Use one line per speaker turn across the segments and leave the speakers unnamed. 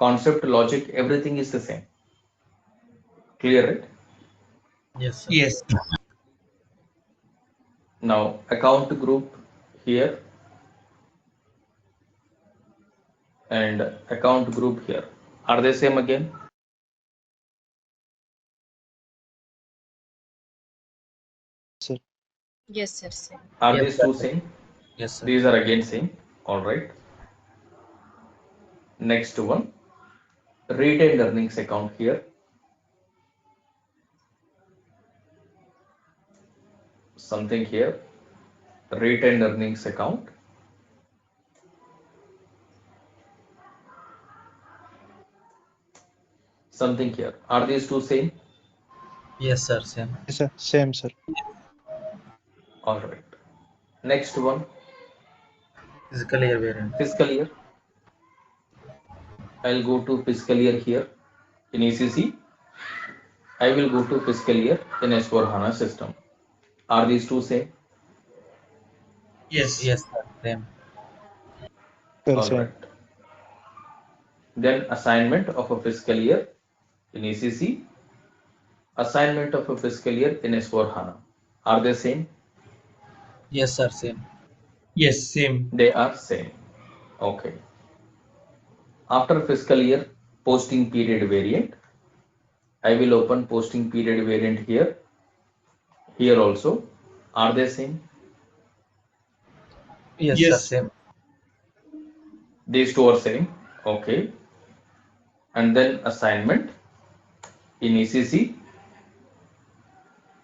concept, logic, everything is the same. Clear it?
Yes, sir.
Yes.
Now account group here and account group here. Are they same again?
Yes, sir. same.
Are
Yes,
these two same?
Yes, sir.
These are again same. All right. Next one, retained earnings account here. Something here, retained earnings account. Something here. Are these two same?
Yes, sir. Same.
Yes, sir. Same, sir.
All right. Next one,
Physical year variant.
fiscal year. I'll go to fiscal year here in ECC. I will go to fiscal year in S4 HANA system. Are these two same?
Yes.
Yes, sir. Same.
Sir,
All
same.
right. Then assignment of a fiscal year in ECC. Assignment of a fiscal year in S4 HANA. Are they same?
Yes, sir. Same.
Yes. Same.
They are same. Okay. After fiscal year, posting period variant. I will open posting period variant here. Here also. Are they same?
Yes,
Yes.
sir. Same.
These two are same. Okay. And then assignment in E ECC.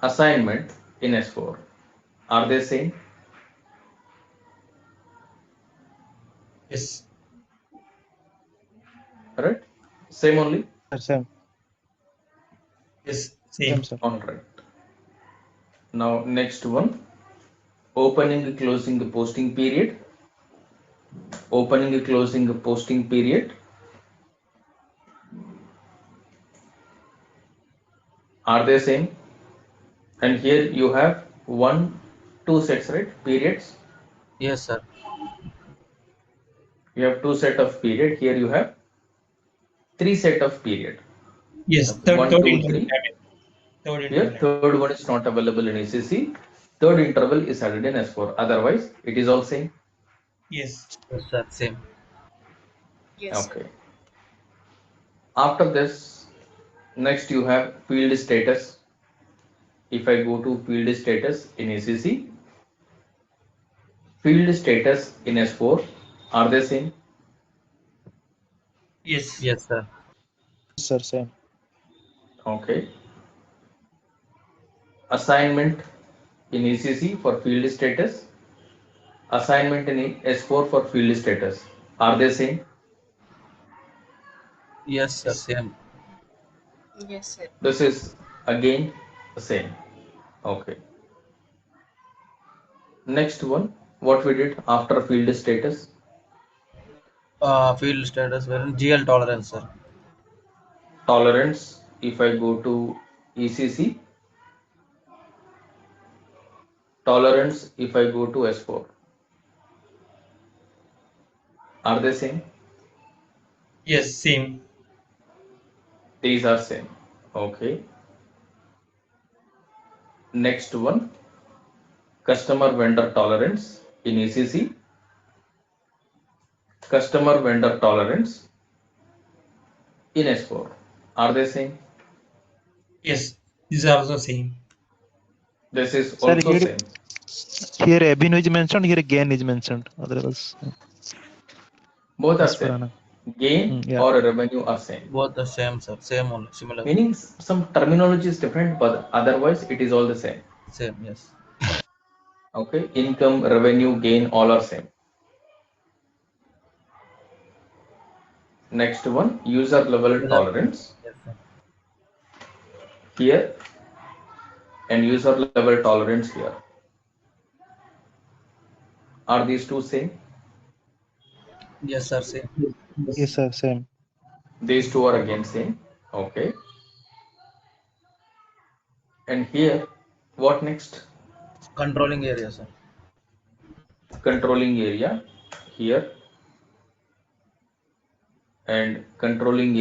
Assignment in S4. Are they same?
Yes.
Right? Same only?
Sir, Ah, same.
Yes.
Same,
Same.
sir.
All right. Now next one, opening, closing, posting period. Opening, closing, posting period. Are they same? And here you have one, two sets, right? Periods.
Yes, sir.
You have two set of period. Here you have three set of period.
Yes.
Okay.
Third.
One,
third
two,
interval. I
three.
mean, Third
Here,
interval.
third one is not available in ACC. Third interval is added in S4. Otherwise, it is all same.
Yes.
Yes, sir. Same.
Yes, sir.
Okay. After this, next you have field status. If I go to field status in ACC, field status in S4, are they same?
Yes.
Yes, sir.
Sir, same.
Okay. Assignment in ECC for field status. Assignment in S4 for field status. Are they same?
Yes, sir. Same.
Yes, sir.
This is again the same. Okay. Next one, what we did after field status.
Uh, field status variant. GL tolerance, sir.
Tolerance, if I go to E ECC. Tolerance, if I go to S4. Are they same?
Yes. Same.
These are same. Okay. Next one, customer vendor tolerance in E ECC. Customer vendor tolerance in S4. Are they same?
Yes. These are also same.
This is
Sir,
also
here-
same.
Here Abhinu is mentioned, here Gain is mentioned. Otherwise,
Both are
as per
same.
Anna.
Gain
Mm, yeah.
or revenue are same.
Both the same, sir. Same only. Similar.
Meaning s- some terminology is different, but otherwise it is all the same.
Same. Yes.
Okay. Income, revenue, gain, all are same. Next one, user level tolerance.
Yes, sir.
here and user level tolerance here. Are these two same?
Yes, sir. Same.
Yes, sir. Same.
These two are again same. Okay. And here, what next?
Controlling area, sir.
Controlling area here. and controlling